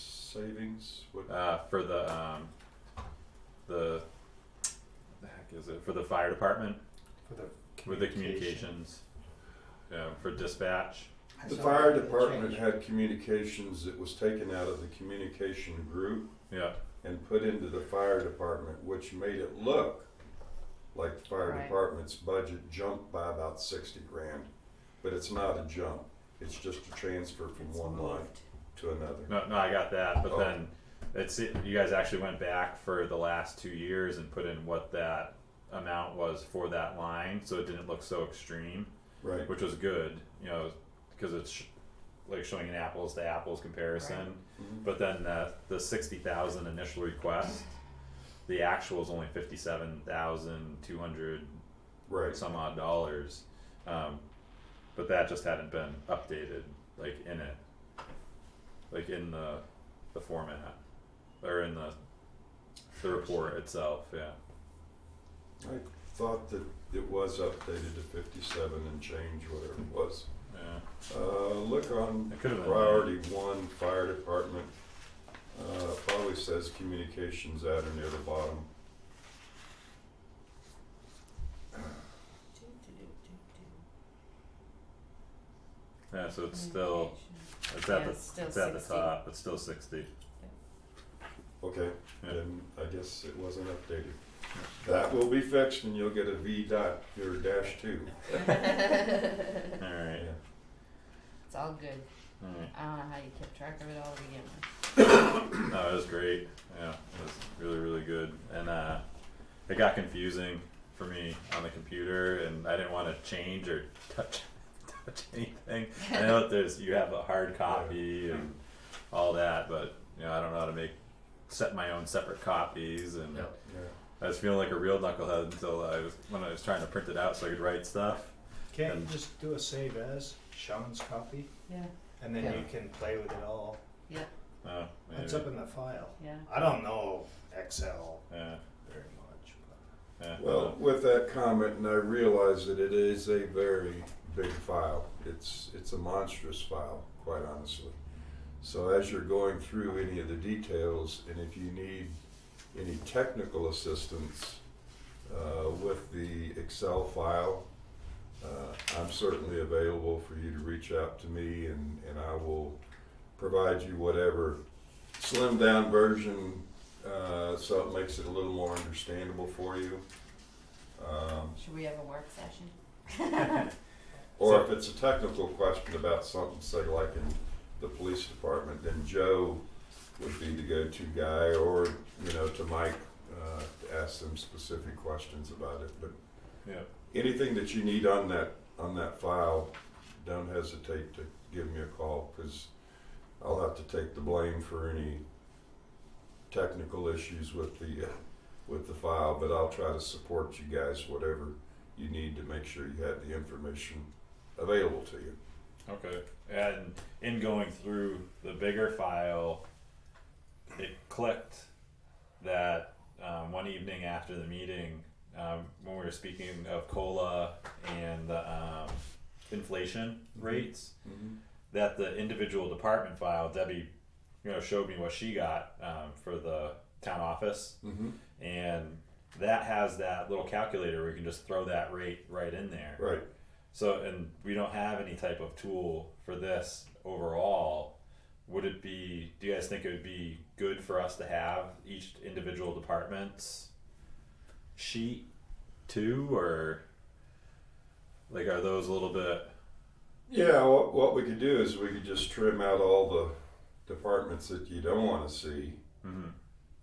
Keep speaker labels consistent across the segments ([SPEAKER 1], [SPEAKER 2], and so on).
[SPEAKER 1] savings, what,
[SPEAKER 2] uh, for the um, the the heck is it for the fire department
[SPEAKER 3] for the
[SPEAKER 2] with the communications, yeah, for dispatch.
[SPEAKER 3] I
[SPEAKER 1] the
[SPEAKER 3] saw
[SPEAKER 1] fire
[SPEAKER 3] that
[SPEAKER 1] department
[SPEAKER 3] change.
[SPEAKER 1] had communications that was taken out of the communication group
[SPEAKER 2] Yeah,
[SPEAKER 1] and put into the fire department, which made it look like the fire
[SPEAKER 4] Right.
[SPEAKER 1] department's budget jumped by about sixty grand. But it's not a jump, it's just a transfer from
[SPEAKER 4] It's
[SPEAKER 1] one line
[SPEAKER 4] moved.
[SPEAKER 1] to another.
[SPEAKER 2] no, no, I got that. But
[SPEAKER 1] Oh.
[SPEAKER 2] then it's it, you guys actually went back for the last two years and put in what that amount was for that line, so it didn't look so extreme.
[SPEAKER 1] Right,
[SPEAKER 2] which was good, you know, because it's sh- like showing an apples to apples comparison.
[SPEAKER 1] Mhm.
[SPEAKER 2] But then the the sixty thousand initial request, the actual is only fifty seven thousand two hundred
[SPEAKER 1] right,
[SPEAKER 2] some odd dollars, um, but that just hadn't been updated like in it, like in the the format or in the the report itself. Yeah,
[SPEAKER 1] I thought that it was updated to fifty-seven and change, whatever it was.
[SPEAKER 2] yeah,
[SPEAKER 1] Uh, look on
[SPEAKER 2] it could have been
[SPEAKER 1] priority one, fire department, uh, probably says communications out or near the bottom.
[SPEAKER 4] Do, do, do, do,
[SPEAKER 2] Yeah, so it's
[SPEAKER 4] do.
[SPEAKER 2] still it's at
[SPEAKER 4] Yeah,
[SPEAKER 2] the
[SPEAKER 4] it's still
[SPEAKER 2] it's at the
[SPEAKER 4] 60.
[SPEAKER 2] top. It's still sixty.
[SPEAKER 1] Okay,
[SPEAKER 2] Yeah.
[SPEAKER 1] then I guess it wasn't updated. That will be fixed and you'll get a V dot, or dash two.
[SPEAKER 4] it's
[SPEAKER 2] All right.
[SPEAKER 4] all good.
[SPEAKER 2] Alright,
[SPEAKER 4] I don't know how you kept track of it all to begin with.
[SPEAKER 2] no, it was great, yeah, it was really, really good, and uh, it got confusing for me on the computer, and I didn't wanna change or touch, touch anything. I know that there's, you have a hard copy and all that, but, you know, I don't know how to make, set my own separate copies, and
[SPEAKER 3] Yeah.
[SPEAKER 1] Yeah.
[SPEAKER 2] I was feeling like a real knucklehead until I was, when I was trying to print it out so I could write stuff.
[SPEAKER 3] Can't you
[SPEAKER 2] And-
[SPEAKER 3] just do a save as Sean's copy,
[SPEAKER 4] Yeah,
[SPEAKER 3] and then
[SPEAKER 4] Yeah.
[SPEAKER 3] you can play with it all.
[SPEAKER 4] yeah,
[SPEAKER 2] Oh,
[SPEAKER 3] It's
[SPEAKER 2] maybe.
[SPEAKER 3] up in the file.
[SPEAKER 4] yeah.
[SPEAKER 3] I don't know Excel
[SPEAKER 2] Yeah,
[SPEAKER 3] very much, but
[SPEAKER 2] yeah, I
[SPEAKER 1] Well,
[SPEAKER 2] don't-
[SPEAKER 1] with that comment, and I realize that it is a very big file. It's, it's a monstrous file, quite honestly. So as you're going through any of the details, and if you need any technical assistance uh, with the Excel file, uh, I'm certainly available for you to reach out to me, and, and I will provide you whatever slimmed down version uh, so it makes it a little more understandable for you. Um,
[SPEAKER 4] Should we have a work session?
[SPEAKER 1] or if it's a technical question about something, say like in the police department, then Joe would be the go-to guy, or, you know, to Mike, uh, to ask them specific questions about it, but
[SPEAKER 2] yeah,
[SPEAKER 1] anything that you need on that, on that file, don't hesitate to give me a call, cause I'll have to take the blame for any technical issues with the, uh, with the file, but I'll try to support you guys, whatever you need to make sure you have the information available to you.
[SPEAKER 2] Okay, and in going through the bigger file, it clicked that um, one evening after the meeting, um, when we were speaking of cola and the um, inflation rates, that the individual department file, Debbie, you know, showed me what she got um, for the town office,
[SPEAKER 1] Mm-hmm.
[SPEAKER 2] and that has that little calculator where you can just throw that rate right in there.
[SPEAKER 1] Right,
[SPEAKER 2] So, and we don't have any type of tool for this overall. Would it be, do you guys think it would be good for us to have each individual department's sheet too, or like are those a little bit,
[SPEAKER 1] yeah, what, what we could do is we could just trim out all the departments that you don't wanna see,
[SPEAKER 2] mhm,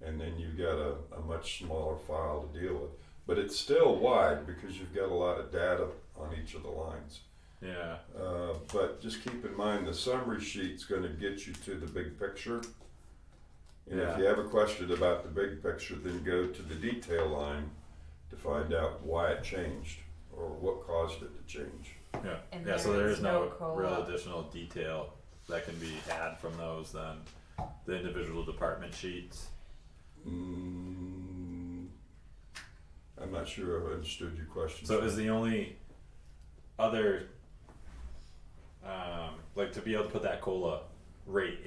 [SPEAKER 1] and then you've got a, a much smaller file to deal with. But it's still wide because you've got a lot of data on each of the lines.
[SPEAKER 2] yeah,
[SPEAKER 1] Uh, but just keep in mind the summary sheet's going to get you to the big picture. And if
[SPEAKER 2] Yeah.
[SPEAKER 1] you have a question about the big picture, then go to the detail line to find out why it changed or what caused it to change.
[SPEAKER 2] yeah.
[SPEAKER 4] And
[SPEAKER 2] Yeah, so
[SPEAKER 4] there
[SPEAKER 2] there
[SPEAKER 4] is
[SPEAKER 2] is no
[SPEAKER 4] no COLA.
[SPEAKER 2] real additional detail that can be had from those than the individual department sheets.
[SPEAKER 1] Mm, I'm not sure I understood your question.
[SPEAKER 2] So is the only other um, like to be able to put that cola rate